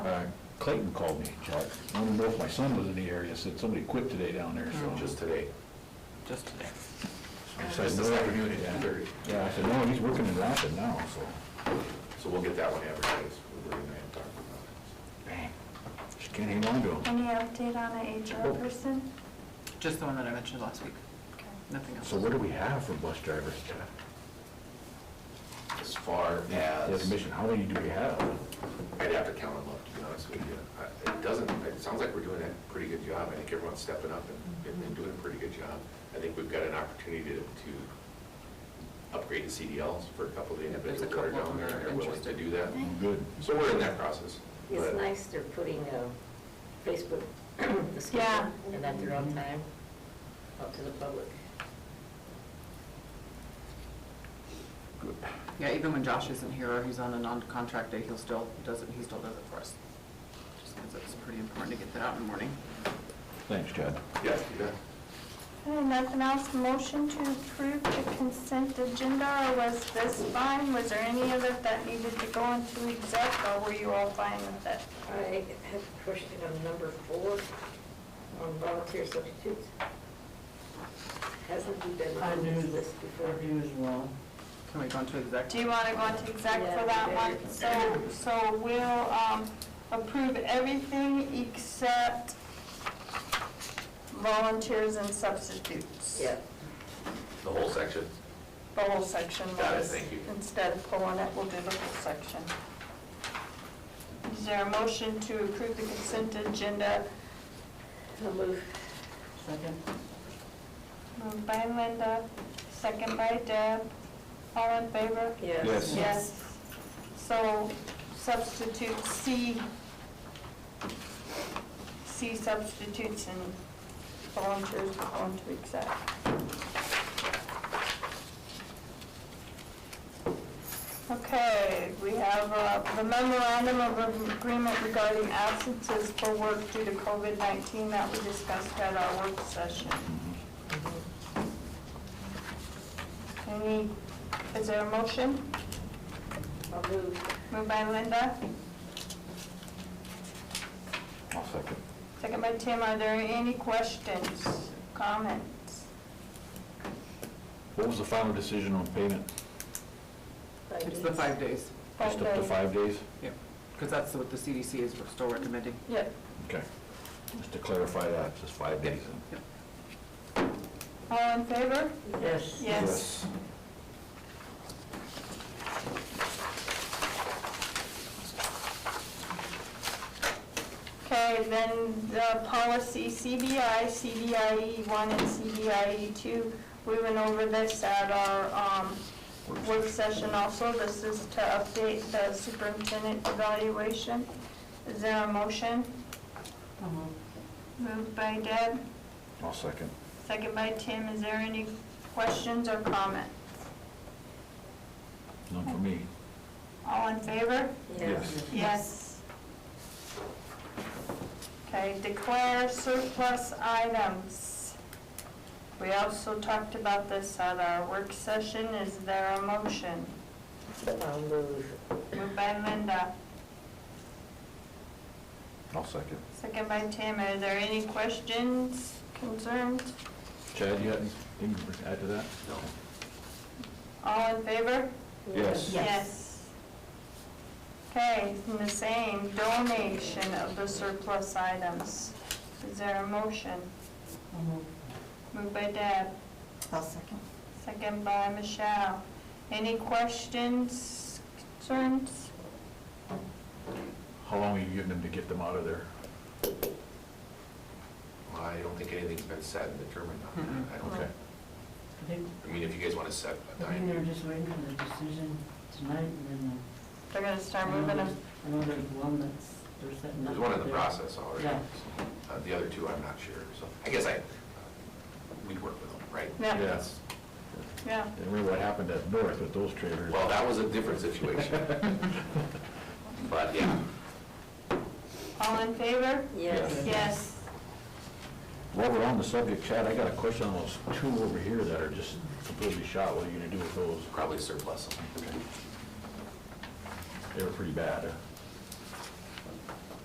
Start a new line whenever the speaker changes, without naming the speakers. Uh, Clayton called me, Chuck. I wanted to know if my son was in the area, said somebody quit today down there, so.
Just today.
just today.
I said,
Just this
"No."
afternoon at
Yeah.
10:30.
Yeah, I said, no, he's working in Rapid now, so.
So we'll get that one advertised. We're going to talk about
Bang. Just can't hang on to him.
Any update on the HR person?
Just the one that I mentioned last week,
Okay.
nothing else.
So what do we have for bus drivers, Chuck?
it. As far
The
as,
admission, how many do we have?
I'd have to count them up, to be honest with you. I- It doesn't, it sounds like we're doing a pretty good job. I think everyone's stepping up and- and and doing a pretty good job. I think we've got an opportunity to to upgrade the CDLs for a couple of the
There's a
individuals that are
couple of
down
them
there
that are
and they're willing to
interested.
do that.
Oh, Good.
So we're in that process.
It's
but-
nice they're putting a Facebook
Yeah.
discussion and that they're on time out to the public.
Yeah, even when Josh isn't here or he's on a non-contract day, he'll still, does it, he still does it for us. Just because it's pretty important to get that out in the morning.
Thanks, Chad.
Yeah, you bet.
Okay, Nothing else, motion to approve the consent agenda, or was this fine? Was there any of it that needed to go into exec, or were you all fine with it?
I have a question on number four, on volunteer substitutes. Hasn't he been on this list before?
Unusual. Can we go into exec?
Do you want to go into exec for that one? So, so we'll um, approve everything except volunteers and substitutes.
Yeah,
The whole section.
The whole section was.
Got it, thank you.
Instead of pulling it, we'll do the whole section. Is there a motion to approve the consent agenda?
I'll move.
Moved by Linda, second by Deb. All in favor?
Yes.
Yes.
Yes. So substitute C, C substitutes and volunteers will go into exec. Okay, we have uh, the memorandum of agreement regarding absences for work due to COVID-19 that we discussed at our work session.
Mm-hmm.
Mm-hmm.
Any, is there a motion?
I'll move.
Moved by Linda,
I'll second.
second by Tim. Are there any questions, comments?
What was the final decision on payment?
Five
It's the
days.
five days,
Just up to
Both
five days?
yeah, because that's what the CDC is still recommending.
Yep.
Okay. Just to clarify that, just five days.
Yep.
All in favor?
Yes.
Yes. Okay, then the policy CBI, CBIE E one and CBIE E two, we went over this at our um, work session also. This is to update the superintendent evaluation. Is there a motion? Moved by Deb,
I'll second.
second by Tim. Is there any questions or comment?
None for me.
All in favor?
Yes.
Yes. Okay, declare surplus items. We also talked about this at our work session. Is there a motion?
I'll move.
Moved by Linda,
I'll second.
second by Tim. Are there any questions, concerns?
Chad, you got anything to add to that?
No.
All in favor?
Yes.
Yes. Okay, and the same, donation of the surplus items. Is there a motion? Moved by Deb.
I'll second.
Second by Michelle. Any questions, concerns?
How long are you giving them to get them out of there?
Well, I don't think anything's been said and determined on that. I don't
Okay.
I think,
I mean, if you guys want to set a
I think
time,
Mm-hmm.
they're just waiting for the decision tonight, and then
They're gonna
uh,
start
I know
moving
there's,
them.
I know there's one that's, they're setting up.
there's one in the
there.
process already.
Yeah.
Uh, The other two, I'm not sure, so I guess I, we work with them, right?
Yeah.
Yes.
Yeah,
And remember what happened at North with those trailers?
Well, that was a different situation. But, yeah,
all in favor?
Yes.
Yes.
While we're on the subject, Chad, I got a question on those two over here that are just completely shot. What are you gonna do with those?
probably surplus them.
They were pretty bad. huh?